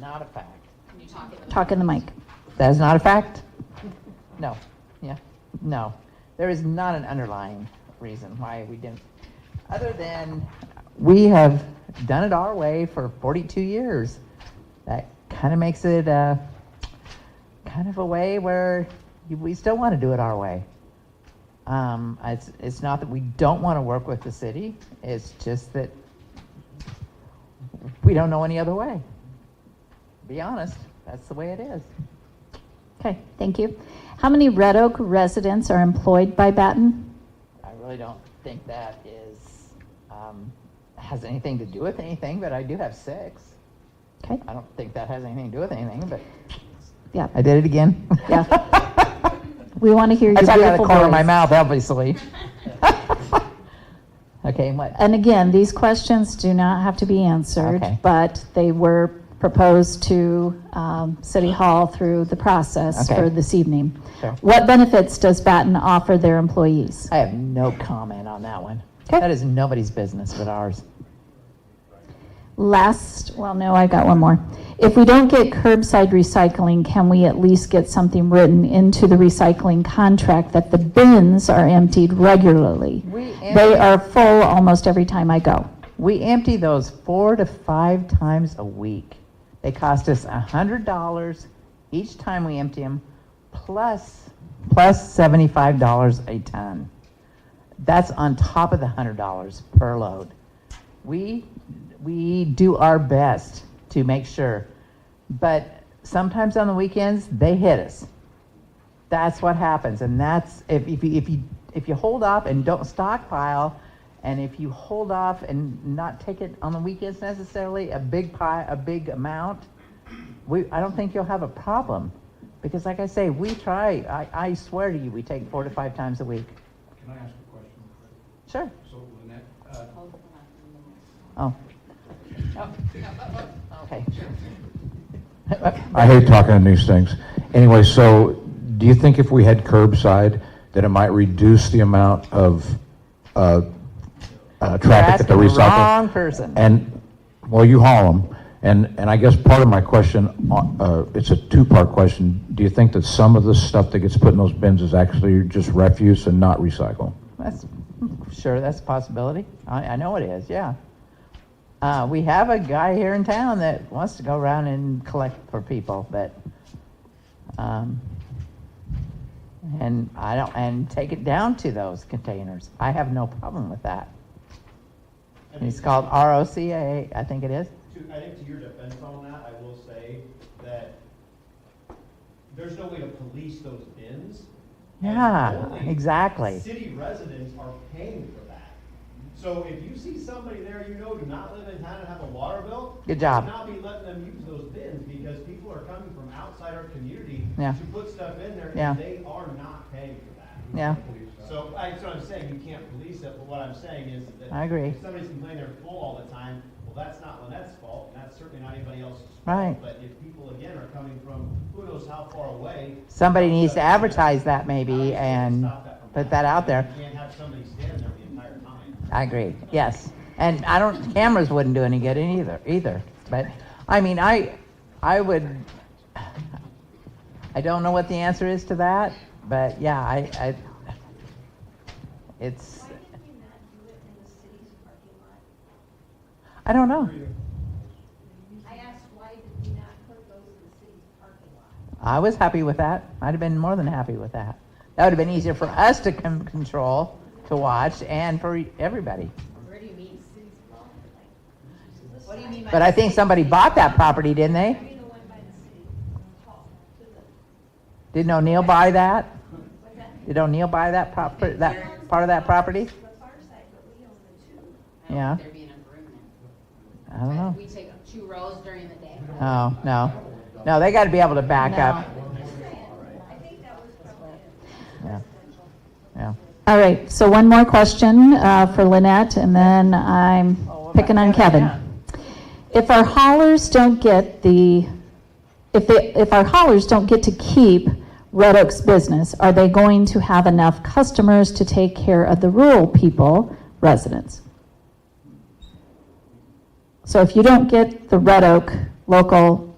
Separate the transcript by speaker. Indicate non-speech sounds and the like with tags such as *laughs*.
Speaker 1: not a fact.
Speaker 2: Can you talk in the?
Speaker 3: Talk in the mic.
Speaker 1: That is not a fact? No, yeah, no. There is not an underlying reason why we didn't, other than we have done it our way for 42 years. That kind of makes it uh, kind of a way where you- we still want to do it our way. Um, It's, it's not that we don't want to work with the city, it's just that we don't know any other way. Be honest, that's the way it is.
Speaker 3: Okay, thank you. How many Red Oak residents are employed by Batten?
Speaker 1: I really don't think that is, um, has anything to do with anything, but I do have six.
Speaker 3: Okay,
Speaker 1: I don't think that has anything to do with anything, but
Speaker 3: yeah,
Speaker 1: I did it again. *laughs*
Speaker 3: Yeah. we want to hear your
Speaker 1: I talk
Speaker 3: beautiful voice.
Speaker 1: out of the corner of my mouth, obviously. *laughs* Okay, and what,
Speaker 3: And again, these questions do not have to be answered,
Speaker 1: Okay.
Speaker 3: but they were proposed to um, City Hall through the process
Speaker 1: Okay.
Speaker 3: for this evening.
Speaker 1: Sure.
Speaker 3: What benefits does Batten offer their employees?
Speaker 1: I have no comment on that one.
Speaker 3: Okay.
Speaker 1: That is nobody's business but ours.
Speaker 3: Last, well, no, I got one more. If we don't get curbside recycling, can we at least get something written into the recycling contract that the bins are emptied regularly?
Speaker 1: We
Speaker 3: They
Speaker 1: empty-
Speaker 3: are full almost every time I go.
Speaker 1: We empty those four to five times a week. They cost us a hundred dollars each time we empty them, plus plus seventy-five dollars a ton. That's on top of the hundred dollars per load. We we do our best to make sure, but sometimes on the weekends they hit us. That's what happens, and that's if, if you if you if you hold off and don't stockpile, and if you hold off and not take it on the weekends necessarily, a big pie, a big amount, we I don't think you'll have a problem, because like I say, we try. I, I swear to you, we take four to five times a week.
Speaker 4: Can I ask a question?
Speaker 1: Sure.
Speaker 4: So Lynette, uh,
Speaker 1: Oh. Okay.
Speaker 5: I hate talking on these things. Anyway, so do you think if we had curbside, that it might reduce the amount of uh, uh,
Speaker 1: You're
Speaker 5: traffic at the
Speaker 1: asking the wrong
Speaker 5: recycle?
Speaker 1: person.
Speaker 5: And, well, you haul them. And, and I guess part of my question, uh, it's a two-part question. Do you think that some of the stuff that gets put in those bins is actually just refuse and not recycle?
Speaker 1: That's, sure, that's a possibility. I, I know it is, yeah. Uh, we have a guy here in town that wants to go around and collect for people, but, um, and I don't, and take it down to those containers. I have no problem with that. It's called ROCA, I think it is.
Speaker 6: To, I think to your defense on that, I will say that there's no way to police those bins. and
Speaker 1: Yeah,
Speaker 6: only
Speaker 1: exactly.
Speaker 6: City residents are paying for that. So if you see somebody there you know do not live in town and have a water bill.
Speaker 1: Good job.
Speaker 6: Do not be letting them use those bins because people are coming from outside our community
Speaker 1: Yeah.
Speaker 6: to put stuff in there
Speaker 1: Yeah.
Speaker 6: and they are not paying for that.
Speaker 1: Yeah,
Speaker 4: uh,
Speaker 6: So, I- that's what I'm saying, you can't police it, but what I'm saying is that.
Speaker 1: I agree.
Speaker 6: If somebody's complaining they're full all the time, well, that's not Lynette's fault, and that's certainly not anybody else's fault.
Speaker 1: Right.
Speaker 6: But if people, again, are coming from who knows how far away.
Speaker 1: somebody needs to
Speaker 6: how does
Speaker 1: advertise that
Speaker 6: somebody
Speaker 1: maybe and
Speaker 6: stop that from
Speaker 1: put that out there.
Speaker 6: happening? You can't have somebody standing there the entire time.
Speaker 1: I agree, yes. And I don't, cameras wouldn't do any good in either, either. But, I mean, I, I would, I don't know what the answer is to that, but yeah, I, I, it's,
Speaker 7: Why did we not do it in the city's parking lot?
Speaker 1: I don't know.
Speaker 7: I asked why did we not put those in the city's parking lot?
Speaker 1: I was happy with that. I'd have been more than happy with that. That would have been easier for us to con- control, to watch, and for everybody.
Speaker 2: Where do you mean? What do you mean by?
Speaker 1: But I think somebody bought that property, didn't
Speaker 7: I
Speaker 1: they?
Speaker 7: mean, the one by the city hall, to the,
Speaker 1: Didn't O'Neill buy that?
Speaker 7: what's that?
Speaker 1: Did O'Neill buy that prop, that, part of that property?
Speaker 7: The far side, but we own the two.
Speaker 2: I don't
Speaker 1: Yeah.
Speaker 2: think There'd be an improvement.
Speaker 1: I don't know.
Speaker 2: We take two rows during the day.
Speaker 1: Oh, no. No, they got to be able to back up.
Speaker 7: I think that was probably it.
Speaker 1: Yeah. Yeah.
Speaker 3: All right, so one more question uh, for Lynette, and then I'm
Speaker 1: Oh, what
Speaker 3: picking
Speaker 1: about
Speaker 3: on Kevin.
Speaker 1: Kevin?
Speaker 3: If our haulers don't get the, if they, if our haulers don't get to keep Red Oak's business, are they going to have enough customers to take care of the rural people, residents? So if you don't get the Red Oak local